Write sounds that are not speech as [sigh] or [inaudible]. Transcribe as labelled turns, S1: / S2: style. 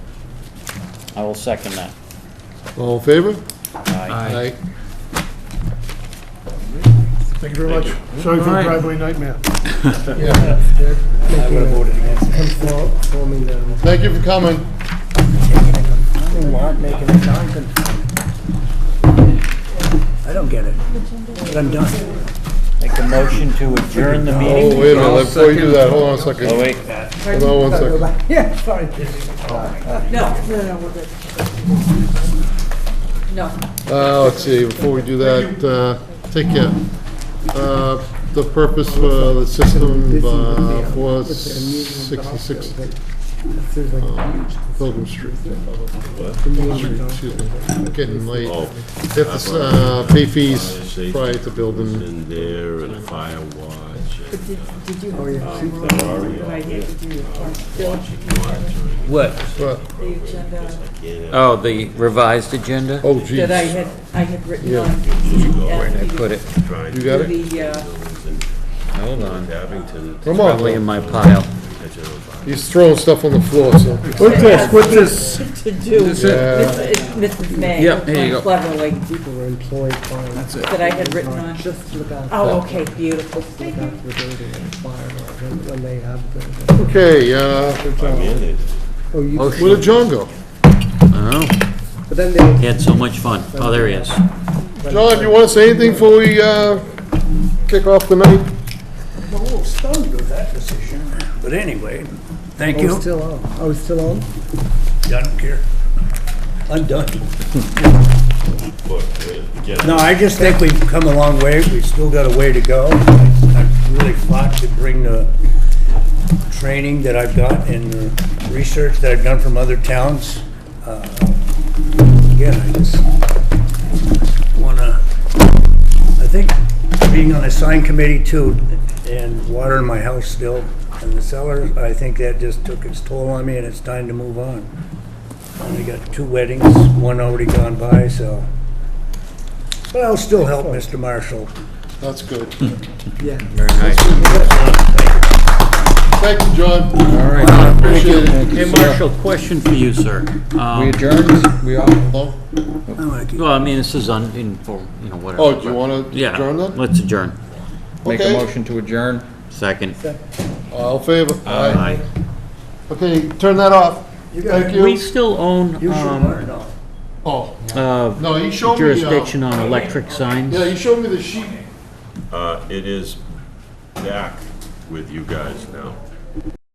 S1: I will second that.
S2: All in favor?
S1: Aye.
S2: Aye.
S3: Thank you very much. Sorry for the driveway nightmare.
S2: Yeah.
S4: I would have voted against. Him for- forming the,
S2: Thank you for coming.
S4: not making it non-conforming. I don't get it, but I'm done.
S1: Make a motion to adjourn the
S2: Oh,
S1: meeting.
S2: wait a minute, before you do that, hold on a second.
S1: Oh, wait,
S2: Hold on one second.
S4: Yeah, sorry.
S5: No, no, no, we're good. No.
S2: Uh, let's see, before we do that, uh, take care. Uh, the purpose for the system, uh, for sixty-six
S4: Seems like a huge-
S2: Pilgrim Street. Excuse me, Getting late.
S6: Oh.
S2: Have to, s- uh, pay fees
S6: Safety
S2: prior to
S6: was
S2: building.
S6: in there and a fire watch and
S5: Did, did you? Oh,
S6: monitoring.
S7: What?
S2: But,
S5: The agenda
S7: Oh, the revised agenda?
S2: oh geez,
S5: that I had, I had written
S2: Yeah.
S5: on.
S7: Where did I put it?
S6: Trying
S2: you
S6: to
S2: got it?
S5: The, uh, [laughs]
S7: Hold on.
S6: Abington.
S2: Come
S7: Probably in
S2: on,
S7: my pile.
S2: he's throwing stuff on the floor, so.
S3: What's this, what's this?
S5: to do. This
S2: Yeah.
S5: is Mrs. May.
S7: Yeah, here you go.
S5: Cleverly,
S4: People were employed by. That's it.
S5: that I had written on.
S4: Just look out.
S5: Oh, okay, beautiful.
S4: Look out for the building and fire, when- when they have the.
S2: Okay, uh,
S4: Oh, you,
S7: Oh,
S2: where did John go?
S4: but then they.
S7: He had so much fun. Oh, there he is.
S2: John, you wanna say anything before we, uh, kick off the night?
S4: The whole stone goes that decision.
S8: But anyway, thank
S4: Oh,
S8: you.
S4: still on, oh, still on?
S8: I don't care. I'm done. No, I just think we've come a long way. We've still got a way to go. I- I've really fought to bring the training that I've got and the research that I've done from other towns. Uh, Again, I just wanna, I think being on the sign committee too, and water in my house still, and the cellar, I think that just took its toll on me and it's time to move on. Only got two weddings, one already gone by, so. But I'll still help Mr. Marshall.
S2: That's good.
S4: Yeah.
S7: Very nice.
S2: Thank you, John. All right. Appreciate it.
S7: Hey, Marshall, question for you, sir. Um,
S2: adjourned, we are.
S8: I like it.
S7: Well, I mean, this is uninformed, you know, whatever.
S2: Oh, do you
S7: but-
S2: wanna adjourn
S7: Yeah,
S2: then?
S7: let's adjourn.
S1: make a
S2: Okay.
S1: motion to adjourn.
S7: Second.
S2: All in favor?
S7: Aye.
S2: Okay, turn that off. Thank
S7: We
S2: you.
S7: still own um,
S2: Oh,
S7: uh,
S2: no, you showed me, uh,
S7: jurisdiction on electric signs.
S2: yeah, you showed me the sheet.
S6: Uh, it is back with you guys now.